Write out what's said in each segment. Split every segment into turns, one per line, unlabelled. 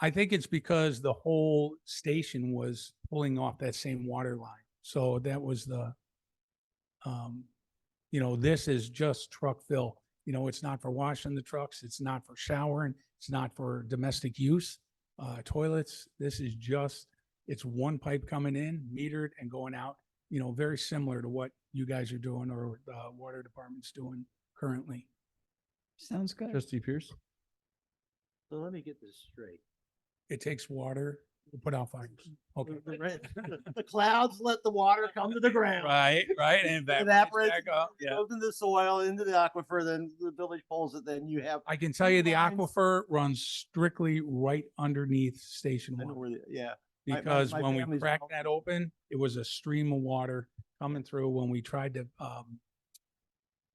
I think it's because the whole station was pulling off that same water line. So that was the, um, you know, this is just truck fill. You know, it's not for washing the trucks. It's not for showering. It's not for domestic use, uh, toilets. This is just, it's one pipe coming in, metered and going out, you know, very similar to what you guys are doing or, uh, water department's doing currently.
Sounds good.
Trustee Pierce?
So let me get this straight.
It takes water to put out fires. Okay.
The- The rain- the clouds let the water come to the ground,
Right, right, and evaporates
It evaporates
back up, yeah.
goes into the soil, into the aquifer, then the village pulls it, then you have,
I can tell you the
Lines.
aquifer runs strictly right underneath station
I know
one.
where, the- yeah. my- my-
Because
my
when we
family's
cracked
all-
that open, it was a stream of water coming through when we tried to, um,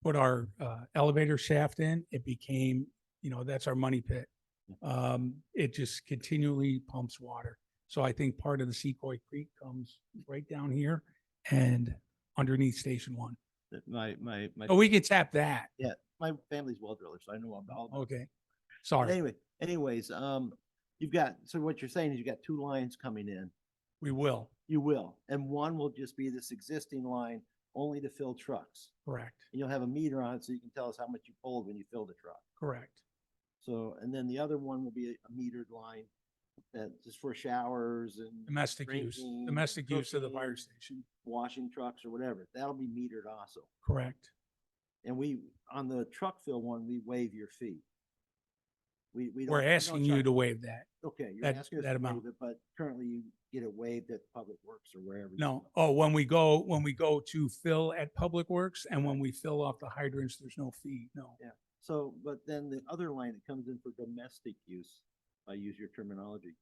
put our, uh, elevator shaft in, it became, you know, that's our money pit. Um, it just continually pumps water. So I think part of the Secoy Creek comes right down here and underneath station one.
that My, my, my,
Oh, we could tap that.
my family's well driller, so I know about
Oh,
all about it.
Okay.
But
Sorry,
Anyway, anyways, um, you've got, so what you're saying is you've got two lines coming in.
we will.
You will, and one will just be this existing line only to fill trucks.
Correct,
And you'll have a meter on it so you can tell us how much you pulled when you filled a truck.
correct.
So, and then the other one will be a a metered line that just for showers and
Domestic use,
Drinking,
domestic use of the fire
cooking.
station.
washing trucks or whatever. That'll be metered also.
Correct.
And we, on the truck fill one, we waive your fee. We, we. don't-
We're
we don't
asking you
charge-
to waive that.
Okay, you're
that-
asking us
that
to
amount.
waive it, but currently you get it waived at Public Works or wherever. you
No,
go.
oh, when we go, when we go to fill at Public Works and when we fill off the hydrants, there's no fee, no.
So, but then the other line that comes in for domestic use, I use your terminology.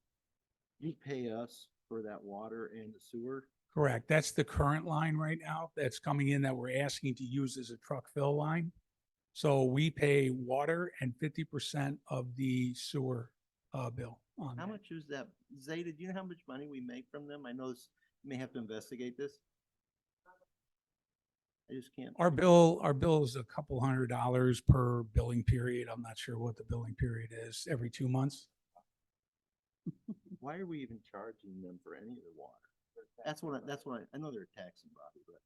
You pay us for that water and the sewer.
Correct. That's the current line right now that's coming in that we're asking to use as a truck fill line. So we pay water and fifty percent of the sewer, uh, bill on
How
that.
much is that? Zeta, do you know how much money we make from them? I know this, you may have to investigate this. I just can't.
Our bill, our bill is a couple hundred dollars per billing period. I'm not sure what the billing period is, every two months.
Why are we even charging them for any of the water? That's what, I- that's what, I- I know they're a taxing body, but.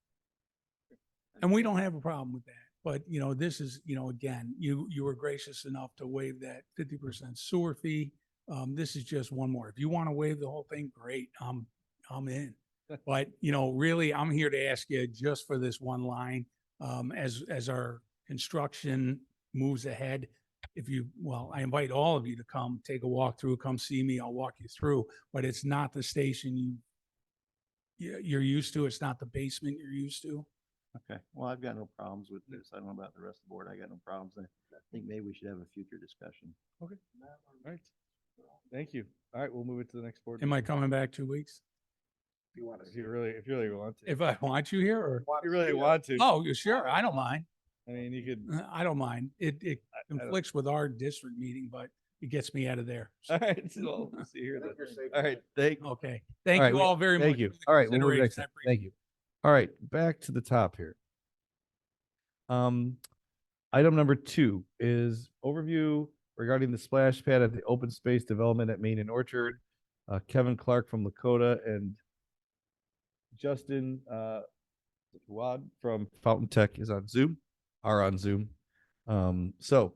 And we don't have a problem with that. But, you know, this is, you know, again, you, you were gracious enough to waive that fifty percent sewer fee. Um, this is just one more. If you want to waive the whole thing, great, I'm, I'm in. But, you know, really, I'm here to ask you just for this one line, um, as, as our construction moves ahead. If you, well, I invite all of you to come, take a walk through, come see me, I'll walk you through, but it's not the station you you- you're used to, it's not the basement you're used to.
Okay, well, I've got no problems with this. I don't know about the rest of the board. I got no problems. I think maybe we should have a future discussion.
Okay. All right. Thank you. All right, we'll move it to the next board.
Am I coming back two weeks?
If you really, if you really want to.
If I want you here or,
You really want to.
oh, you sure, I don't mind.
I mean, you could.
Uh, I don't mind. It, it
don't-
conflicts with our district meeting, but it gets me out of there.
All right, so we'll see here then. All right, thank,
Okay.
right,
Thank you
we-
all very much.
thank you.
for the
All right, we'll move
consideration.
next.
I
time.
appreciate
Thank you. All right, back to the top here. Um, item number two is overview regarding the splash pad at the open space development at Main and Orchard. Uh, Kevin Clark from Lakota and Justin, uh, Wad from Fountain Tech is on Zoom, are on Zoom. Um, so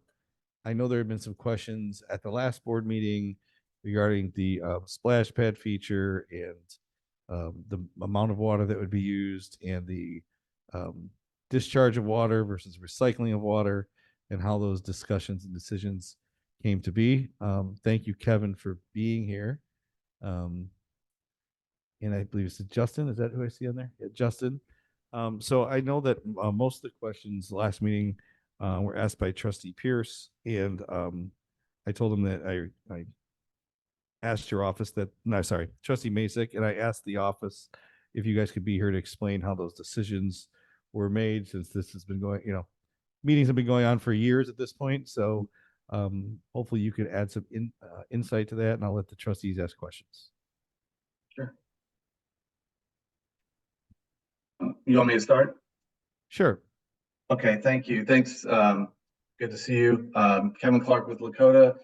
I know there have been some questions at the last board meeting regarding the, uh, splash pad feature and um, the m- amount of water that would be used and the um, discharge of water versus recycling of water and how those discussions and decisions came to be. Um, thank you, Kevin, for being here. Um, and I believe it's Justin. Is that who I see on there? Yeah, Justin. Um, so I know that uh, most of the questions last meeting uh, were asked by Trustee Pierce, and um, I told him that I, I asked your office that, no, sorry, trustee Masek, and I asked the office if you guys could be here to explain how those decisions were made since this has been going, you know, meetings have been going on for years at this point. So um, hopefully you could add some in, uh, insight to that and I'll let the trustees ask questions.
You want me to start?
Sure.
Okay, thank you. Thanks. Um, good to see you. Um, Kevin Clark with Lakota.